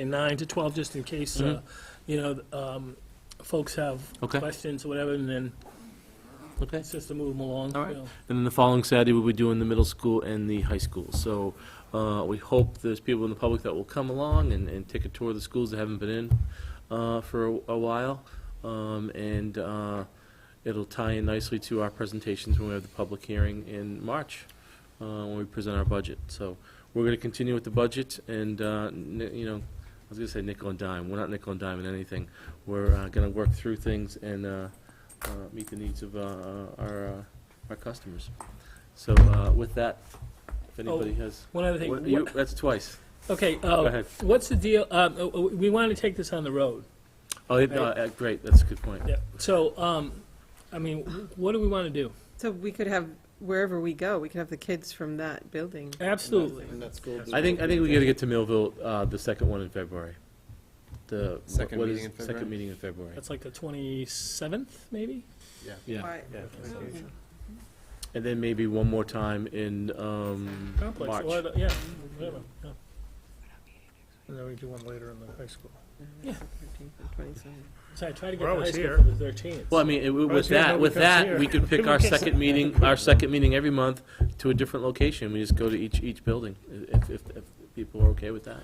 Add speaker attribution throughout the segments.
Speaker 1: and nine to 12, just in case, uh, you know, um, folks have
Speaker 2: Mm-hmm. Okay.
Speaker 1: questions or whatever, and then
Speaker 2: Okay.
Speaker 1: it's just to move them along.
Speaker 2: All right.
Speaker 1: you know.
Speaker 2: And then the following Saturday, we'll be doing the middle school and the high school. So uh, we hope there's people in the public that will come along and, and take a tour of the schools that haven't been in uh, for a, a while. Um, and uh, it'll tie in nicely to our presentations when we have the public hearing in March, uh, when we present our budget. So we're going to continue with the budget and, uh, n- you know, I was going to say nickel and dime. We're not nickel and dime in anything. We're uh, going to work through things and uh, uh, meet the needs of uh, our uh, our customers. So uh, with that, if anybody has,
Speaker 1: One other thing.
Speaker 2: What- you- that's twice.
Speaker 1: Okay,
Speaker 2: Go
Speaker 1: uh,
Speaker 2: ahead.
Speaker 1: what's the deal, uh, uh, we wanted to take this on the road.
Speaker 2: Oh, it- uh, uh, great, that's a good point.
Speaker 1: Yeah. So, um, I mean, wh- what do we want to do?
Speaker 3: So we could have, wherever we go, we could have the kids from that building.
Speaker 1: Absolutely.
Speaker 4: And that's gold.
Speaker 2: I think, I think we got to get to Millville, uh, the second one in February. The.
Speaker 4: Second
Speaker 2: what
Speaker 4: meeting
Speaker 2: is-
Speaker 4: in February?
Speaker 2: Second meeting in February.
Speaker 1: That's like the 27th, maybe?
Speaker 4: Yeah.
Speaker 2: Yeah.
Speaker 3: Why-
Speaker 4: Yeah.
Speaker 3: Okay.
Speaker 2: And then maybe one more time in um,
Speaker 1: Complex,
Speaker 2: March.
Speaker 1: or the- Yeah, whatever. yeah.
Speaker 5: And then we do one later in the high school.
Speaker 1: Yeah.
Speaker 3: 13th and 27th.
Speaker 1: So I tried to get
Speaker 5: We're
Speaker 1: the high
Speaker 5: always
Speaker 1: school
Speaker 5: here.
Speaker 1: for the 13th.
Speaker 2: Well, I mean, it- with
Speaker 5: it's here,
Speaker 2: that,
Speaker 5: nobody
Speaker 2: with
Speaker 5: comes
Speaker 2: that,
Speaker 5: here.
Speaker 2: we could pick our
Speaker 5: Nobody comes
Speaker 2: second meeting, our second meeting every month to a different location. We just go to each, each building, i- if, if, if people are okay with that.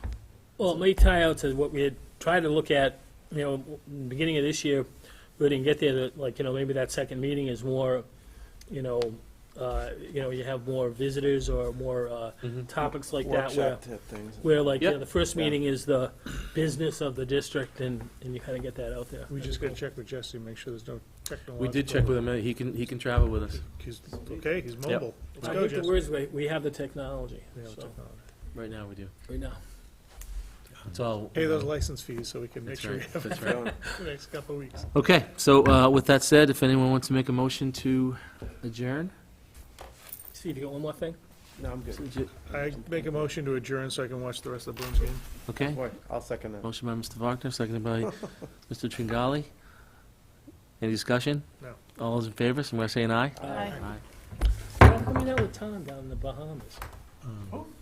Speaker 1: Well, it may tie out to what we had tried to look at, you know, in the beginning of this year, we didn't get there, that, like, you know, maybe that second meeting is more, you know, uh, you know, you have more visitors or more uh,
Speaker 5: Mm-hmm.
Speaker 1: topics like that where,
Speaker 4: Workshop type things.
Speaker 1: where like, you know,
Speaker 2: Yep.
Speaker 1: the first
Speaker 4: Yeah.
Speaker 1: meeting is the business of the district and, and you kind of get that out there.
Speaker 5: We just gotta check with Jesse, make sure there's no technological.
Speaker 2: We did check with him, and he can, he can travel with us
Speaker 5: He's, okay, he's mobile. Let's
Speaker 1: I
Speaker 5: go,
Speaker 1: think the
Speaker 5: Jesse.
Speaker 1: words, we, we have the technology,
Speaker 5: We have
Speaker 1: so,
Speaker 5: technology.
Speaker 2: right now, we do.
Speaker 1: right now.
Speaker 2: It's all.
Speaker 5: Pay those license fees so we can make
Speaker 2: That's
Speaker 5: sure we
Speaker 2: right,
Speaker 5: have
Speaker 2: that's
Speaker 5: it
Speaker 2: right.
Speaker 5: for the next couple of weeks.
Speaker 2: Okay, so, uh, with that said, if anyone wants to make a motion to adjourn?
Speaker 1: Steve, you got one more thing?
Speaker 4: No, I'm good.
Speaker 5: I make a motion to adjourn so I can watch the rest of the Bruins game.
Speaker 2: Okay,
Speaker 4: Boy, I'll second that.
Speaker 2: motion by Mr. Wagner, seconded by Mr. Tringali. Any discussion?
Speaker 5: No.
Speaker 2: All those in favor, somebody say an aye?
Speaker 1: Aye. How come you're not with Tom down in the Bahamas?
Speaker 2: Um,